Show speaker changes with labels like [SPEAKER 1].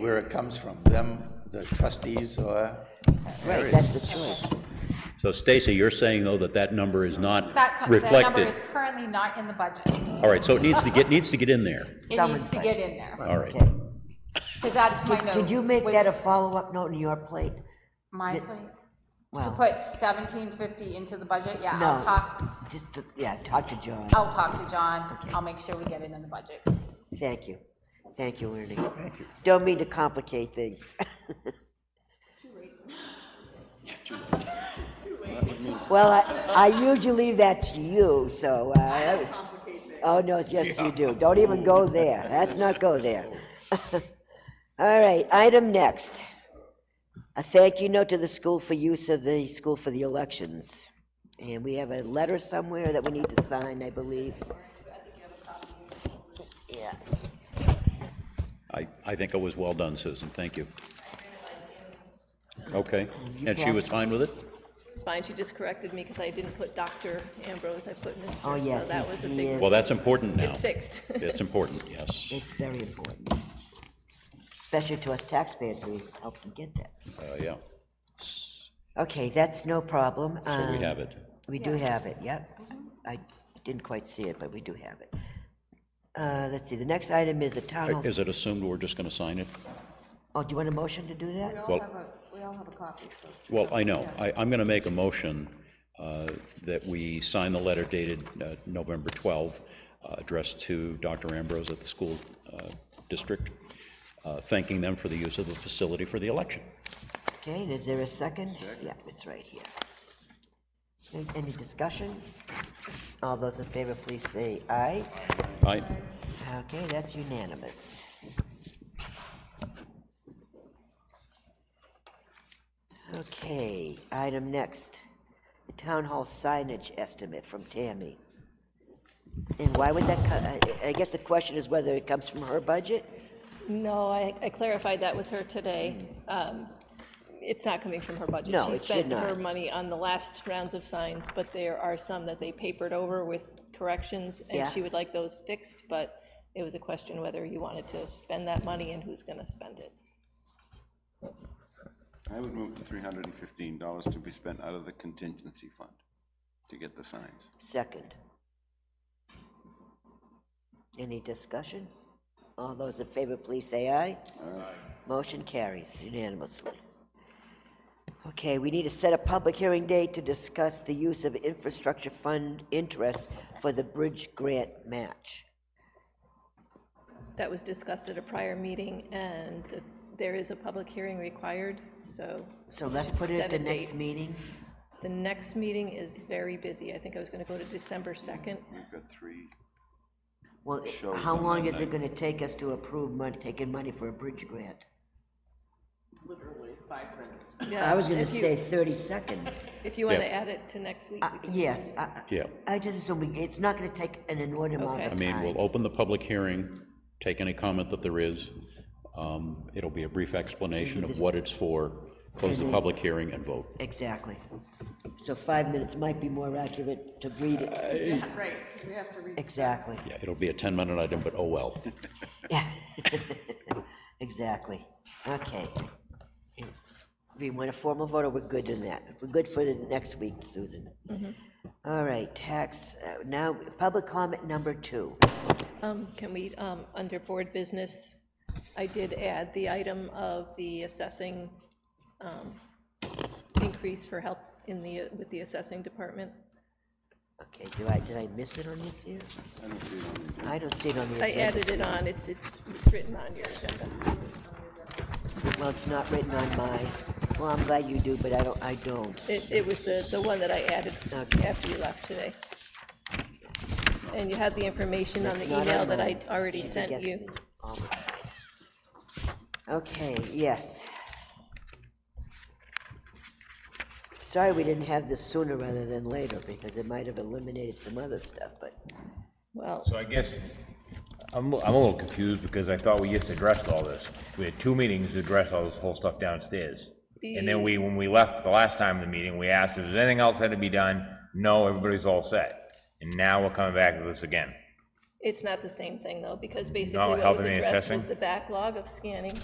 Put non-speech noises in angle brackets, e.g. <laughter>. [SPEAKER 1] where it comes from, them, the trustees, or,
[SPEAKER 2] Right, that's the choice.
[SPEAKER 3] So Stacy, you're saying, though, that that number is not
[SPEAKER 4] That, co- that number
[SPEAKER 3] reflected?
[SPEAKER 4] is currently not in the budget.
[SPEAKER 3] All right, so it needs to get, needs to get in there.
[SPEAKER 4] It needs to get in there,
[SPEAKER 3] All right.
[SPEAKER 2] Okay.
[SPEAKER 4] because that's my note.
[SPEAKER 2] Did you make
[SPEAKER 4] was
[SPEAKER 2] that a follow-up note in your plate?
[SPEAKER 4] My plate, to
[SPEAKER 2] Well,
[SPEAKER 4] put seventeen fifty into the budget, yeah, I'll
[SPEAKER 2] no,
[SPEAKER 4] talk,
[SPEAKER 2] just, to- yeah, talk to John.
[SPEAKER 4] I'll talk to John, I'll make sure we get it in the budget.
[SPEAKER 2] Thank you. Thank you, Ernie. Thank you. Don't mean to complicate things. <laughs> Well, I, I usually leave that to you, so. I Oh, no, yes, you do. Don't even go there. Let's not go there. <laughs> All right, item next. A thank you note to the school for use of the school for the elections. And we have a letter somewhere that we need to sign, I believe. Yeah.
[SPEAKER 3] I, I think it was well done, Susan, thank you. Okay, and she was fine with it?
[SPEAKER 5] It's fine, she just corrected me because I didn't put Dr. Ambrose, I put Mr.
[SPEAKER 2] Oh, yes,
[SPEAKER 5] So that
[SPEAKER 2] he-
[SPEAKER 5] was a
[SPEAKER 2] he
[SPEAKER 5] big,
[SPEAKER 2] is.
[SPEAKER 3] Well, that's important now.
[SPEAKER 5] it's fixed. <laughs>
[SPEAKER 3] It's important, yes.
[SPEAKER 2] It's very important, especially to us taxpayers who helped them get that.
[SPEAKER 3] Uh, Yeah,
[SPEAKER 2] Okay, that's no problem.
[SPEAKER 3] so we
[SPEAKER 2] Um,
[SPEAKER 3] have it.
[SPEAKER 2] We do have it, yep. I didn't quite see it, but we do have it. Uh, Let's see, the next item is the town hall.
[SPEAKER 3] Is it assumed we're just going to sign it?
[SPEAKER 2] Oh, do you want a motion to do that?
[SPEAKER 3] Well, Well, I know. I, I'm going to make a motion uh, that we sign the letter dated uh, November 12, uh, addressed to Dr. Ambrose at the school uh, district, uh, thanking them for the use of the facility for the election.
[SPEAKER 2] Okay, and is there a second? Yeah, it's right here. Any- Any discussion? All those in favor, please say aye.
[SPEAKER 3] Aye?
[SPEAKER 2] Okay, that's unanimous. Okay, item next, the town hall signage estimate from Tammy. And why would that, co- I- I guess the question is whether it comes from her budget?
[SPEAKER 5] No, I, I clarified that with her today. Um, It's not coming from her budget.
[SPEAKER 2] No, it should
[SPEAKER 5] She spent
[SPEAKER 2] not.
[SPEAKER 5] her money on the last rounds of signs, but there are some that they papered over with corrections, and
[SPEAKER 2] Yeah.
[SPEAKER 5] she would like those fixed, but it was a question whether you wanted to spend that money and who's going to spend it.
[SPEAKER 6] I would move the three hundred and fifteen dollars to be spent out of the contingency fund to get the signs.
[SPEAKER 2] Second. Any discussion? All those in favor, please say aye. Motion carries unanimously. Okay, we need to set a public hearing date to discuss the use of infrastructure fund interest for the bridge grant match.
[SPEAKER 5] That was discussed at a prior meeting, and that there is a public hearing required, so
[SPEAKER 2] So let's put it at the
[SPEAKER 5] Set a
[SPEAKER 2] next
[SPEAKER 5] date.
[SPEAKER 2] meeting.
[SPEAKER 5] the next meeting is very busy. I think I was going to go to December 2nd.
[SPEAKER 6] We've got three,
[SPEAKER 2] Well,
[SPEAKER 6] Shows
[SPEAKER 2] how
[SPEAKER 6] on
[SPEAKER 2] long
[SPEAKER 6] that
[SPEAKER 2] is it gonna take us to approve money, taking money for a bridge grant? I was gonna
[SPEAKER 5] If you-
[SPEAKER 2] say thirty seconds.
[SPEAKER 5] If you want to
[SPEAKER 3] Yeah.
[SPEAKER 5] add it to next week,
[SPEAKER 2] Uh, Yes, I, I-
[SPEAKER 3] Yeah.
[SPEAKER 2] I just assume we- it's not gonna take an inordinate amount
[SPEAKER 5] Okay.
[SPEAKER 3] I
[SPEAKER 2] of
[SPEAKER 3] mean,
[SPEAKER 2] time.
[SPEAKER 3] we'll open the public hearing, take any comment that there is. Um, It'll be a brief explanation of what it's for, close the public hearing and vote.
[SPEAKER 2] Exactly. So five minutes might be more accurate to read it.
[SPEAKER 7] Right, we have to read.
[SPEAKER 2] Exactly,
[SPEAKER 3] Yeah, it'll be a 10-minute item, but oh well.
[SPEAKER 2] yeah. Exactly, okay. We want a formal vote, or we're good in that? We're good for the next week, Susan. All right, tax, uh, now, public comment number two. Uh,
[SPEAKER 5] um, can we, um, under board business, I did add the item of the assessing um, increase for help in the, with the assessing department.
[SPEAKER 2] Okay, do I, did I miss it on this here? I don't see it on the
[SPEAKER 5] I
[SPEAKER 2] agenda.
[SPEAKER 5] added it on, it's, it's it's written on your agenda.
[SPEAKER 2] Well, it's not written on my, well, I'm glad you do, but I don't, I don't.
[SPEAKER 5] It, it was the, the one that I added
[SPEAKER 2] Okay.
[SPEAKER 5] after you left today. And you had the information on the
[SPEAKER 2] It's not
[SPEAKER 5] email
[SPEAKER 2] on
[SPEAKER 5] that I
[SPEAKER 2] mine.
[SPEAKER 5] already
[SPEAKER 2] She
[SPEAKER 5] sent
[SPEAKER 2] forgets
[SPEAKER 5] you.
[SPEAKER 2] me all the time. Okay, yes. Sorry we didn't have this sooner rather than later, because it might have eliminated some other stuff, but,
[SPEAKER 5] Well,
[SPEAKER 8] So I guess, I'm, I'm a little confused because I thought we just addressed all this. We had two meetings to address all this whole stuff downstairs. And then we, when we left the last time of the meeting, we asked if there's anything else had to be done. No, everybody's all set. And now we're coming back to this again.
[SPEAKER 5] it's not the same thing, though, because basically
[SPEAKER 8] Not
[SPEAKER 5] what was
[SPEAKER 8] helping the
[SPEAKER 5] addressed was
[SPEAKER 8] assessing?
[SPEAKER 5] the backlog of scanning